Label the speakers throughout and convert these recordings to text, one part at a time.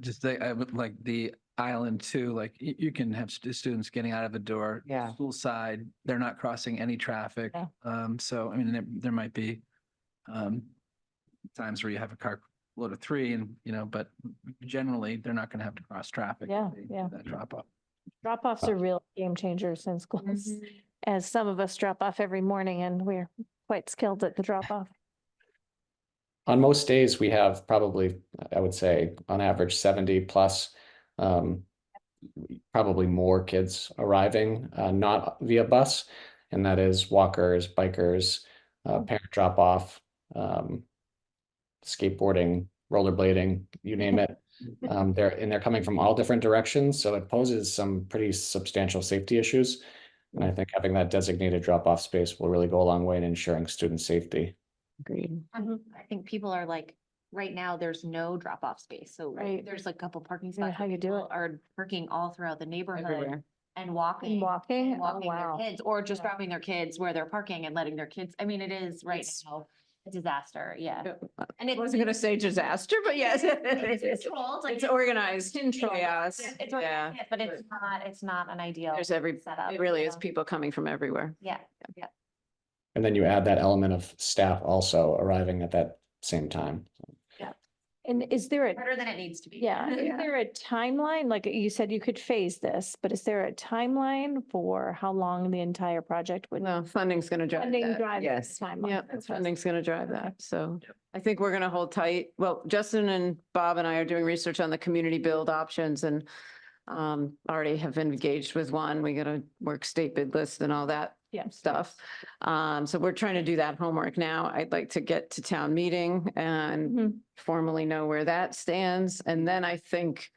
Speaker 1: just think, I would like the island too, like you, you can have stu- students getting out of the door.
Speaker 2: Yeah.
Speaker 1: School side, they're not crossing any traffic.
Speaker 2: Yeah.
Speaker 1: Um, so I mean, there, there might be, um, times where you have a car load of three and, you know, but generally they're not going to have to cross traffic. if
Speaker 3: Yeah,
Speaker 1: they do
Speaker 3: yeah.
Speaker 1: That drop off.
Speaker 3: Drop offs are real game changers in schools, as some of us drop off every morning and we're quite skilled at the drop off.
Speaker 4: On most days, we have probably, I would say, on average, seventy plus. Um, probably more kids arriving, uh, not via bus. And that is walkers, bikers, uh, parent drop off, um, skateboarding, rollerblading, you name it. Um, they're, and they're coming from all different directions, so it poses some pretty substantial safety issues. And I think having that designated drop off space will really go a long way in ensuring student safety.
Speaker 2: Agreed.
Speaker 5: Mm-hmm.
Speaker 6: I'm- I think people are like, right now, there's no drop off space, so
Speaker 3: Right.
Speaker 6: there's a couple parking
Speaker 3: Yeah,
Speaker 6: spots.
Speaker 3: how
Speaker 6: but
Speaker 3: you do
Speaker 6: people
Speaker 3: it.
Speaker 6: Are parking all throughout the neighborhood
Speaker 2: Everywhere.
Speaker 6: and walking.
Speaker 3: Walking,
Speaker 6: and
Speaker 3: oh,
Speaker 6: Walking their
Speaker 3: wow.
Speaker 6: kids or just
Speaker 3: Yeah.
Speaker 6: dropping their kids where they're parking and letting their kids, I mean, it is right now a disaster, yeah.
Speaker 5: Yep.
Speaker 6: And
Speaker 5: I
Speaker 6: it's.
Speaker 5: wasn't gonna say disaster, but yes.
Speaker 6: It's
Speaker 5: It's
Speaker 6: controlled. like,
Speaker 5: it's organized
Speaker 6: you know,
Speaker 5: chaos.
Speaker 6: it's- it's
Speaker 5: Yeah.
Speaker 6: organized, But it's not, it's not an ideal.
Speaker 5: There's every,
Speaker 6: setup,
Speaker 5: it really is
Speaker 6: so,
Speaker 5: people coming from everywhere.
Speaker 6: Yeah.
Speaker 4: And then you add that element of staff also arriving at that same time.
Speaker 3: And is there a,
Speaker 6: harder than it needs to be.
Speaker 3: yeah, is there a timeline? Like you said, you could phase this, but is there a timeline for how long the entire project would?
Speaker 5: Well, funding's gonna drive
Speaker 3: Funding
Speaker 5: that.
Speaker 3: drive
Speaker 5: Yes.
Speaker 3: timeline.
Speaker 5: Yeah,
Speaker 3: That's what I was-
Speaker 5: funding's gonna drive that. So
Speaker 1: Yep.
Speaker 5: I think we're gonna hold tight. Well, Justin and Bob and I are doing research on the community build options and um, already have engaged with one. We gotta work state bid list and all that
Speaker 3: Yeah.
Speaker 5: stuff. Um, so we're trying to do that homework now. I'd like to get to town meeting and
Speaker 3: Mhm.
Speaker 5: formally know where that stands. And then I think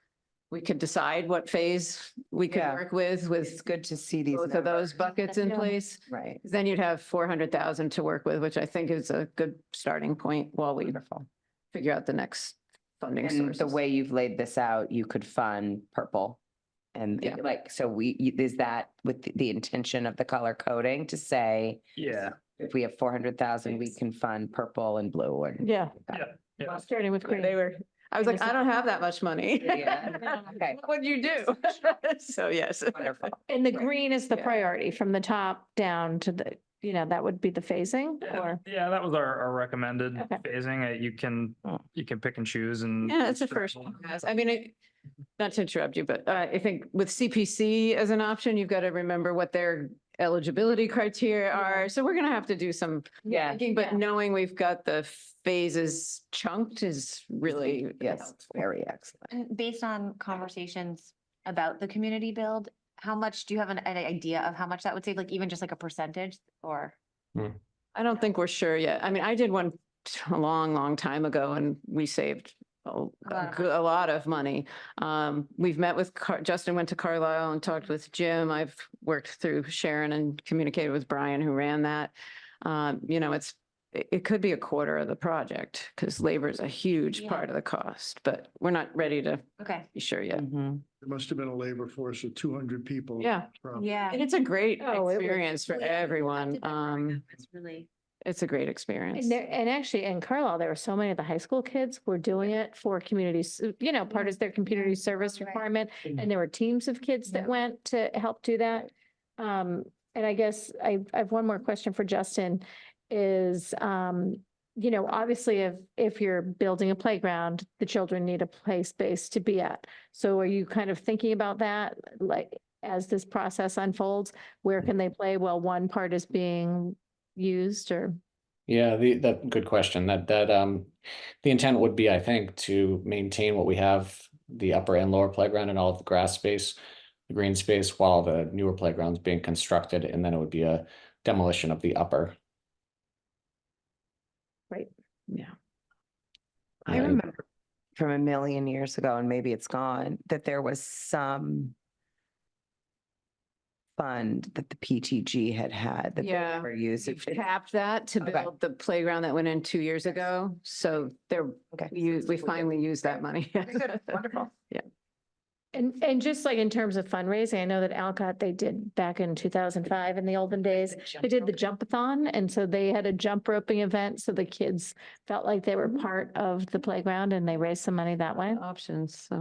Speaker 5: we could decide what phase we could
Speaker 7: Yeah.
Speaker 5: work with, with
Speaker 7: It's good to see these.
Speaker 5: both of those
Speaker 7: numbers.
Speaker 5: buckets in
Speaker 3: Yeah.
Speaker 5: place.
Speaker 7: Right.
Speaker 5: 'Cause Then you'd have four hundred thousand to work with, which I think is a good starting point while we figure out the next funding
Speaker 7: And
Speaker 5: source.
Speaker 7: the way you've laid this out, you could fund purple. And
Speaker 5: Yeah.
Speaker 7: like, so we, you- is that with the- the intention of the color coding to say,
Speaker 1: Yeah.
Speaker 7: if we have four hundred thousand, we can fund purple and blue or?
Speaker 3: Yeah.
Speaker 1: Yeah.
Speaker 3: Starting with
Speaker 5: They
Speaker 3: green.
Speaker 5: were, I was like, I don't have that much money.
Speaker 7: Yeah. Okay,
Speaker 5: What'd you do? So yes.
Speaker 7: wonderful.
Speaker 3: And the green is the
Speaker 5: Yeah.
Speaker 3: priority from the top down to the, you know, that would be the phasing
Speaker 8: Yeah,
Speaker 3: or?
Speaker 8: Yeah, that was our, our recommended
Speaker 3: Okay.
Speaker 8: phasing. Uh, You can, you can pick and choose and.
Speaker 5: Oh. Yeah, it's a first one. guys. I mean, it- not to interrupt you, but uh, I think with CPC as an option, you've got to remember what their eligibility criteria are. So we're going to have to do some
Speaker 7: Yeah.
Speaker 5: thinking, but knowing we've got the phases chunked is really.
Speaker 7: Yes, very excellent.
Speaker 6: And based on conversations about the community build, how much, do you have an, an idea of how much that would save, like even just like a percentage or?
Speaker 5: I don't think we're sure yet. I mean, I did one a long, long time ago and we saved a a
Speaker 6: of
Speaker 5: goo- a lot of money. Um, we've met with, Car- Justin went to Carlisle and talked with Jim. I've worked through Sharon and communicated with Brian who ran that. Um, you know, it's, it, it could be a quarter of the project because labor is a huge
Speaker 6: Yeah.
Speaker 5: part of the cost, but we're not ready to
Speaker 6: Okay,
Speaker 5: be sure yet.
Speaker 7: Mhm.
Speaker 9: There must have been a labor force of two hundred people.
Speaker 5: Yeah,
Speaker 9: from-
Speaker 6: yeah.
Speaker 5: and it's a great
Speaker 3: Oh, it was
Speaker 5: experience for everyone. Um,
Speaker 6: It's really.
Speaker 5: it's a great experience.
Speaker 3: And there, and actually in Carlisle, there were so many of the high school kids were doing it for communities, you know, part of their community service
Speaker 6: Right.
Speaker 3: requirement. And there were teams of kids that went to help do that. Um, and I guess I, I have one more question for Justin is, um, you know, obviously if, if you're building a playground, the children need a play space to be at. So are you kind of thinking about that, like, as this process unfolds, where can they play while one part is being used or?
Speaker 4: Yeah, the that good question. That that um the intent would be, I think, to maintain what we have, the upper and lower playground and all of the grass space, the green space, while the newer playground's being constructed, and then it would be a demolition of the upper.
Speaker 5: Yeah.
Speaker 7: I
Speaker 4: Yeah.
Speaker 7: remember from a million years ago, and maybe it's gone, that there was some fund that the PTG had had that
Speaker 5: Yeah.
Speaker 7: they were used.
Speaker 5: We've
Speaker 7: It-
Speaker 5: tapped that to
Speaker 7: Okay.
Speaker 5: build the playground that went in two years ago. So there,
Speaker 7: Okay.
Speaker 5: we use- we finally used that money.
Speaker 7: Wonderful.
Speaker 3: And, and just like in terms of fundraising, I know that Alcott, they did back in two thousand five in the olden days, they did the jumpathon. And so they had a jump roping event. So the kids felt like they were part of the playground and they raised some money that way.
Speaker 5: Options, so.